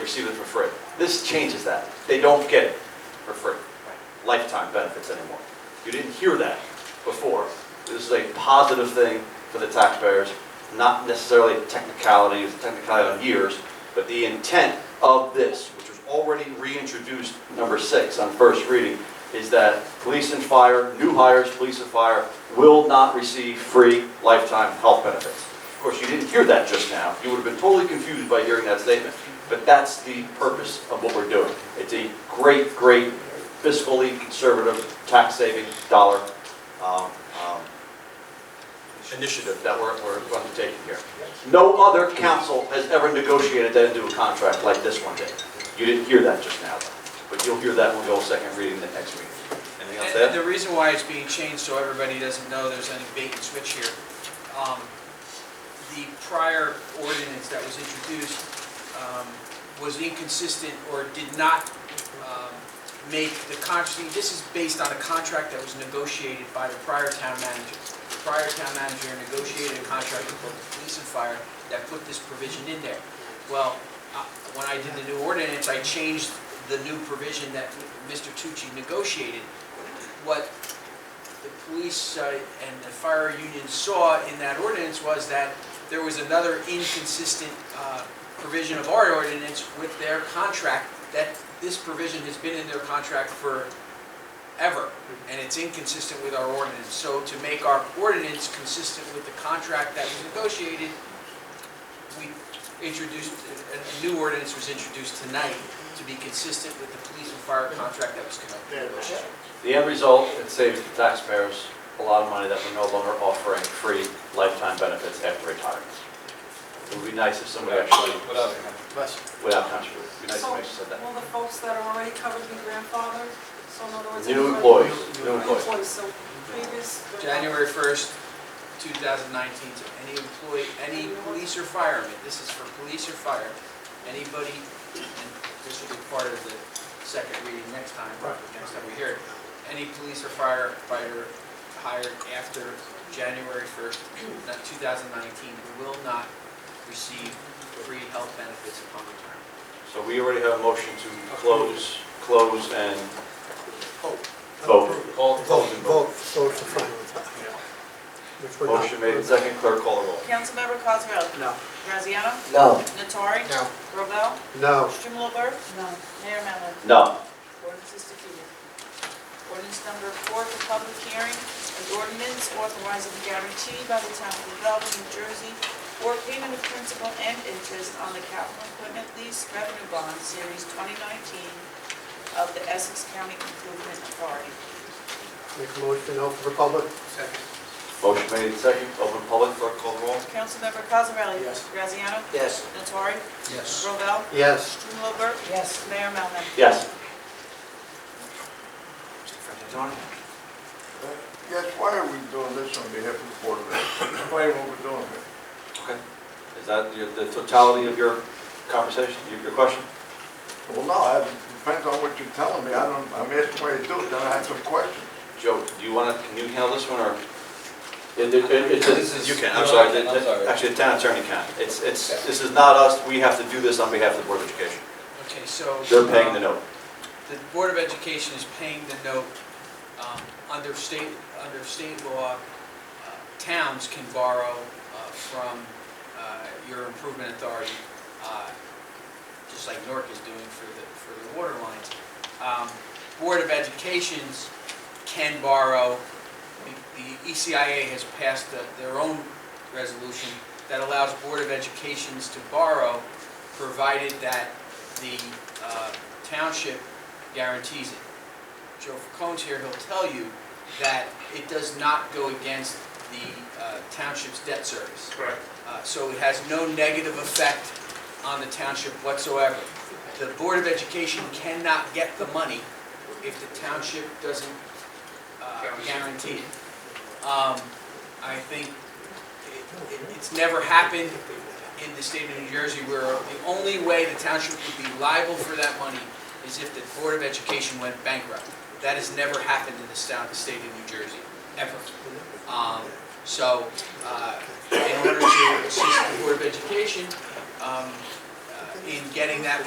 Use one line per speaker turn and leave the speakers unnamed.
receive it for free. This changes that. They don't get it for free, lifetime benefits anymore. You didn't hear that before. This is a positive thing for the taxpayers, not necessarily technicality, it's technicality on years, but the intent of this, which was already reintroduced, number six, on first reading, is that police and fire, new hires, police and fire, will not receive free lifetime health benefits. Of course, you didn't hear that just now. You would have been totally confused by hearing that statement. But that's the purpose of what we're doing. It's a great, great fiscally conservative, tax-saving dollar um, um, initiative that we're we're undertaking here. No other council has ever negotiated that into a contract like this one did. You didn't hear that just now, but you'll hear that when we go second reading the next meeting. Anything else
And
to add?
and the reason why it's being changed, so everybody doesn't know there's any bait and switch here, um, the prior ordinance that was introduced um, was inconsistent or did not um, make the contract, this is based on a contract that was negotiated by the prior town manager. The prior town manager negotiated a contract with both the police and fire that put this provision in there. Well, uh, when I did the new ordinance, I changed the new provision that Mr. Tucci negotiated what the police uh, and the fire union saw in that ordinance was that there was another inconsistent uh, provision of our ordinance with their contract, that this provision has been in their contract forever, and it's inconsistent with our ordinance. So to make our ordinance consistent with the contract that was negotiated, we introduced, a a new ordinance was introduced tonight to be consistent with the police and fire contract that was negotiated.
The end result, it saves the taxpayers a lot of money that we're no longer offering free lifetime benefits after retirement. It would be nice if somebody actually, without contribution, it would be nice if
So,
somebody said that.
will the folks that are already covered be grandfathered? So in other words.
New
everybody-
employees, new
New
employees.
employees, so previous.
January 1st, 2019, to any employee, any police or fireman, this is for police or fire, anybody, and this will be part of the second reading next time, next time we hear it, any police or firefighter hired after January 1st, not 2019, will not receive free health benefits upon retirement.
So we already have a motion to close, close and vote. Call-
Vote,
close and
vote, vote for final. Which we're not-
Motion made and second, clerk call the roll.
Councilmember Cosarelli?
No.
Graziano?
No.
Natori?
No.
Robel?
No.
Strumelberg? No. Mayor Mellon?
No.
Ordinance is defeated. Ordinance number four for public hearing, an ordinance authorizing the guarantee by the town of Belleville, New Jersey, for payment of principal and interest on the capital equipment lease revenue bond series 2019 of the Essex County Improvement Authority.
Make a motion, open for public?
Motion made and second, open public, clerk call the roll.
Councilmember Cosarelli?
Yes.
Graziano?
Yes.
Natori?
Yes.
Robel?
Yes.
Strumelberg? Yes. Mayor Melman?
Yes.
Yes, why are we doing this on behalf of the Board of Ed? Explain what we're doing here.
Okay. Is that your- the totality of your conversation, your- your question?
Well, no, it depends on what you're telling me. I don't, I'm asking why you do it, then I have some questions.
Joe, do you want to, can you handle this one, or? It- it- it- it's-
This is-
You can,
no,
I'm sorry,
I can, I'm
the- the-
sorry.
actually, the town attorney can. It's, it's, this is not us, we have to do this on behalf of the Board of Education.
Okay, so.
They're paying
um,
the note.
the Board of Education is paying the note, um, under state, under state law, uh, towns can borrow uh, from uh, your improvement authority, uh, just like Nork is doing for the, for the water lines. Um, Board of Educations can borrow, the- the E ECIA has passed the- their own resolution that allows Board of Educations to borrow, provided that the uh, township guarantees it. Joe Falcone's here, he'll tell you that it does not go against the uh, township's debt service.
Correct.
Uh, So it has no negative effect on the township whatsoever. The Board of Education cannot get the money if the township doesn't uh, guarantee it. Um, I think it- it- it's never happened in the state of New Jersey where the only way the township would be liable for that money is if the Board of Education went bankrupt. That has never happened in the stout- state of New Jersey, ever. Um, So, uh, in order to assist the Board of Education um, uh, in getting that